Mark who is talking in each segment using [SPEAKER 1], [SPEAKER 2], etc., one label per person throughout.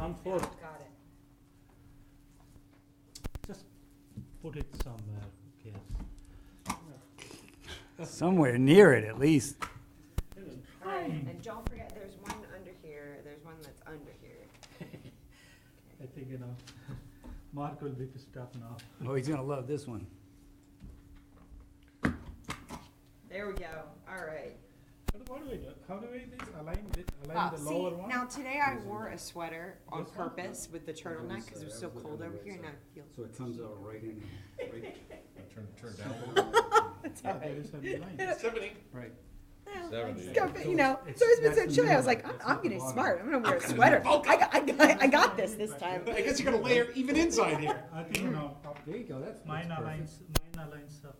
[SPEAKER 1] I'm for it.
[SPEAKER 2] Got it.
[SPEAKER 3] Just put it somewhere, who cares?
[SPEAKER 4] Somewhere near it, at least.
[SPEAKER 2] And don't forget, there's one under here, there's one that's under here.
[SPEAKER 3] I think, you know, Mark will be pissed off now.
[SPEAKER 4] Oh, he's gonna love this one.
[SPEAKER 2] There we go, all right.
[SPEAKER 1] But What do we do? How do we this align this
[SPEAKER 2] Ah,
[SPEAKER 1] align the
[SPEAKER 2] see,
[SPEAKER 1] lower one?
[SPEAKER 2] now today I wore a sweater on
[SPEAKER 1] This one?
[SPEAKER 2] purpose with the turtleneck because it was so cold over here and I feel.
[SPEAKER 4] So it comes out right in, right,
[SPEAKER 5] Turn, turn down.
[SPEAKER 3] Ah,
[SPEAKER 1] Yeah, there is a line.
[SPEAKER 4] right.
[SPEAKER 5] Seventy.
[SPEAKER 2] Go, but, You know,
[SPEAKER 3] It's-
[SPEAKER 2] it's always been so
[SPEAKER 3] that's
[SPEAKER 2] chilly, I was
[SPEAKER 3] minimum.
[SPEAKER 2] like, I'm,
[SPEAKER 3] That's
[SPEAKER 2] I'm
[SPEAKER 3] not the
[SPEAKER 2] getting
[SPEAKER 3] bottom.
[SPEAKER 2] smart, I'm gonna wear a sweater. I got, I got, I got this this time.
[SPEAKER 6] I guess you're gonna layer even inside here.
[SPEAKER 3] I think, you know,
[SPEAKER 4] There you go, that's,
[SPEAKER 3] mine
[SPEAKER 4] that's perfect.
[SPEAKER 3] aligns, mine aligns up.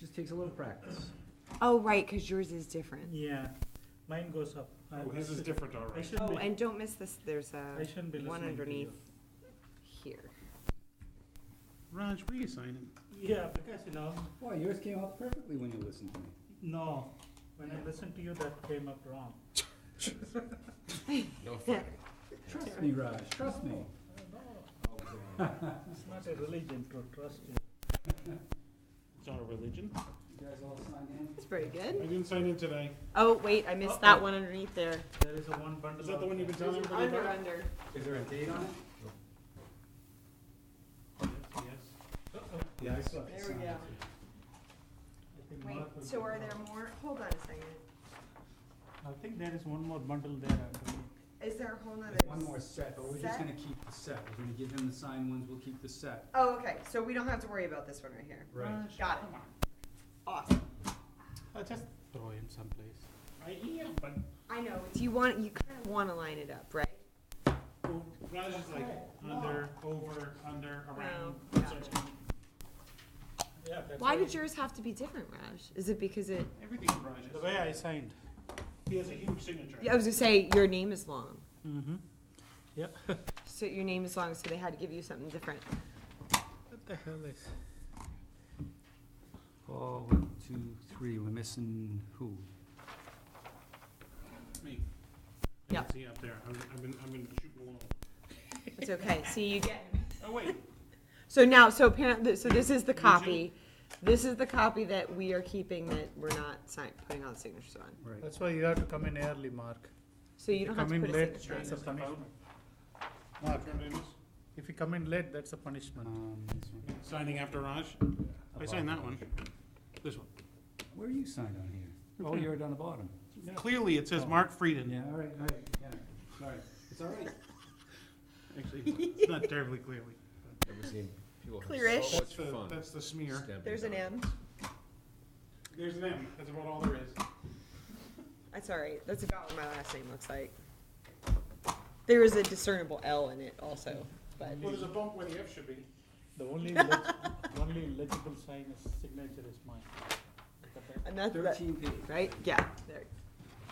[SPEAKER 4] Just takes a little practice.
[SPEAKER 2] Oh, right, because yours is different.
[SPEAKER 3] Yeah, mine goes up. I-
[SPEAKER 6] Oh,
[SPEAKER 3] I
[SPEAKER 6] his is
[SPEAKER 3] should-
[SPEAKER 6] different, all
[SPEAKER 3] I
[SPEAKER 6] right.
[SPEAKER 3] should
[SPEAKER 2] Oh,
[SPEAKER 3] be,
[SPEAKER 2] and don't miss this, there's
[SPEAKER 3] I
[SPEAKER 2] a
[SPEAKER 3] shouldn't be listening to you.
[SPEAKER 2] one underneath here.
[SPEAKER 6] Raj, will you sign him?
[SPEAKER 3] Yeah, because, you know,
[SPEAKER 4] Boy, yours came out perfectly when you listened to me.
[SPEAKER 3] no, when I listened to you, that came up wrong.
[SPEAKER 5] No fun.
[SPEAKER 4] Trust me, Raj, trust me.
[SPEAKER 3] It's not a religion to trust you.
[SPEAKER 1] It's not a religion.
[SPEAKER 4] You guys all signed in?
[SPEAKER 2] It's pretty
[SPEAKER 6] I
[SPEAKER 2] good.
[SPEAKER 6] didn't sign in today.
[SPEAKER 2] Oh, wait, I missed that one underneath there.
[SPEAKER 3] There is a one bundle.
[SPEAKER 6] Is that the
[SPEAKER 3] out
[SPEAKER 6] one you've been
[SPEAKER 3] there.
[SPEAKER 6] telling everybody
[SPEAKER 2] Under,
[SPEAKER 6] about?
[SPEAKER 2] under.
[SPEAKER 4] Is there a date on it?
[SPEAKER 3] Yes, yes. Uh-oh,
[SPEAKER 6] Yeah, I saw it.
[SPEAKER 2] There we go.
[SPEAKER 3] I think
[SPEAKER 2] Wait,
[SPEAKER 3] Mark will
[SPEAKER 2] so
[SPEAKER 3] be
[SPEAKER 2] are
[SPEAKER 3] wrong.
[SPEAKER 2] there more? Hold on a second.
[SPEAKER 3] I think there is one more bundle there underneath.
[SPEAKER 2] Is there a whole nother?
[SPEAKER 4] There's one more set, but we're
[SPEAKER 2] Set?
[SPEAKER 4] just gonna keep the set. We're gonna give him the signed ones, we'll keep the set.
[SPEAKER 2] Oh, okay, so we don't have to worry about this one right here.
[SPEAKER 4] Right.
[SPEAKER 2] Got it. Awesome.
[SPEAKER 3] Uh,
[SPEAKER 1] I just throw him someplace.
[SPEAKER 6] I am, but
[SPEAKER 2] I know, it's- you want, you kind of want to line it up, right?
[SPEAKER 6] oh, Raj is like under, over, under, around.
[SPEAKER 2] No,
[SPEAKER 6] so-
[SPEAKER 3] Yeah, that's
[SPEAKER 2] Why
[SPEAKER 3] right.
[SPEAKER 2] did yours have to be different, Raj? Is it because it,
[SPEAKER 6] Everything from Raj
[SPEAKER 1] The
[SPEAKER 6] is.
[SPEAKER 1] way I signed.
[SPEAKER 6] He has a huge signature.
[SPEAKER 2] I was gonna say, your name is long.
[SPEAKER 3] Mm-hmm. Yeah. what
[SPEAKER 2] So your name is long, so they had to give you something different.
[SPEAKER 3] the hell is?
[SPEAKER 4] Paul, Oh, one, two, three, we're missing who?
[SPEAKER 6] Me. I
[SPEAKER 2] Yeah.
[SPEAKER 6] can see up there. I'm, I've been, I've been shooting along.
[SPEAKER 2] It's okay, see, you get.
[SPEAKER 6] Oh, wait.
[SPEAKER 2] So now, so apparently, so this is the
[SPEAKER 6] Usually-
[SPEAKER 2] copy. This is the copy that we are keeping that we're not sign, putting all the signatures on.
[SPEAKER 4] Right.
[SPEAKER 1] That's why you have to come in early, Mark.
[SPEAKER 2] So you
[SPEAKER 1] If
[SPEAKER 2] don't
[SPEAKER 1] you
[SPEAKER 2] have to
[SPEAKER 1] come
[SPEAKER 2] put a
[SPEAKER 1] in late,
[SPEAKER 2] signature on
[SPEAKER 1] it's
[SPEAKER 2] it.
[SPEAKER 1] a
[SPEAKER 6] Is that
[SPEAKER 1] punishment.
[SPEAKER 6] Mark, do you want to do this?
[SPEAKER 1] If you come in late, that's a punishment.
[SPEAKER 4] Um, this one.
[SPEAKER 6] Signing after Raj? I signed that one. This one.
[SPEAKER 4] Where are you signed on here? Oh, you're down the bottom.
[SPEAKER 6] Clearly, it says Mark Frieden.
[SPEAKER 4] Yeah, all right, all right, yeah, all right. It's all right.
[SPEAKER 6] Actually, it's not terribly clearly.
[SPEAKER 5] Never seen people have
[SPEAKER 2] Clearish.
[SPEAKER 5] so much
[SPEAKER 6] That's the,
[SPEAKER 5] fun.
[SPEAKER 6] that's the smear.
[SPEAKER 5] stamping
[SPEAKER 2] There's an
[SPEAKER 5] down.
[SPEAKER 2] M.
[SPEAKER 6] There's an M. That's about all there is.
[SPEAKER 2] That's all right. That's about what my last name looks like. There is a discernible L in it also, but
[SPEAKER 6] Well, there's a bump where the F should be.
[SPEAKER 3] The only, leg- only legible sign is signature is mine.
[SPEAKER 2] and that's that,
[SPEAKER 4] Thirteen page.
[SPEAKER 2] right? Yeah. There.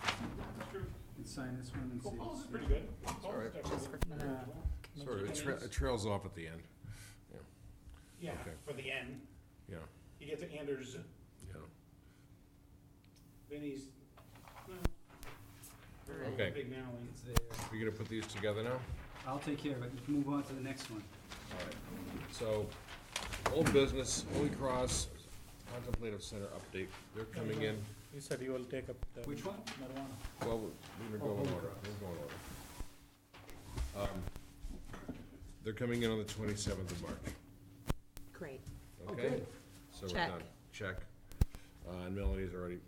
[SPEAKER 6] That's true.
[SPEAKER 4] Let's sign this one and see.
[SPEAKER 6] Well, Paul's is Oh, pretty good. Paul's
[SPEAKER 5] alright.
[SPEAKER 6] is actually good.
[SPEAKER 5] Sort of, it tra- it trails off at the end,
[SPEAKER 6] Yeah,
[SPEAKER 5] Okay.
[SPEAKER 6] for the N.
[SPEAKER 5] yeah,
[SPEAKER 6] You get to Anders,
[SPEAKER 5] yeah.
[SPEAKER 6] then he's, no. Very
[SPEAKER 5] Okay.
[SPEAKER 6] Big now, and-
[SPEAKER 4] It's there.
[SPEAKER 5] We gonna put these together now?
[SPEAKER 4] I'll take care of it. Let's move on to the next one.
[SPEAKER 5] So, old business, Holy Cross Contemplative Center update, they're coming in,
[SPEAKER 1] You said you will take up the
[SPEAKER 4] Which one?
[SPEAKER 1] marijuana.
[SPEAKER 5] well, we're gonna go in order, we're going in order. Um, They're coming in on the twenty-seventh of March.
[SPEAKER 2] Great.
[SPEAKER 5] Okay, so we're
[SPEAKER 2] Check.
[SPEAKER 5] done, check. Uh, and Melanie's already,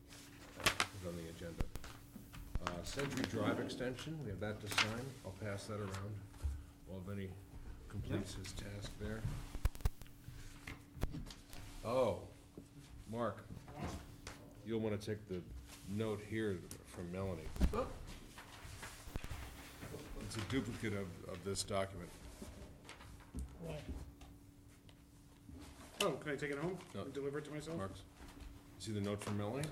[SPEAKER 5] uh, put on the agenda. Uh, Century Drive Extension, we have that to sign, I'll pass that around, while Vinnie completes his task there. Oh, Mark, you'll wanna take the note here from Melanie. It's a duplicate of, of this document.
[SPEAKER 6] Oh, can I take it home
[SPEAKER 5] No.
[SPEAKER 6] and deliver it to myself?
[SPEAKER 5] Mark's, see the note from Melanie?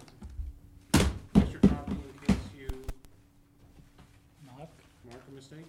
[SPEAKER 6] Extra copy in case you
[SPEAKER 3] Mark,
[SPEAKER 6] mark a mistake?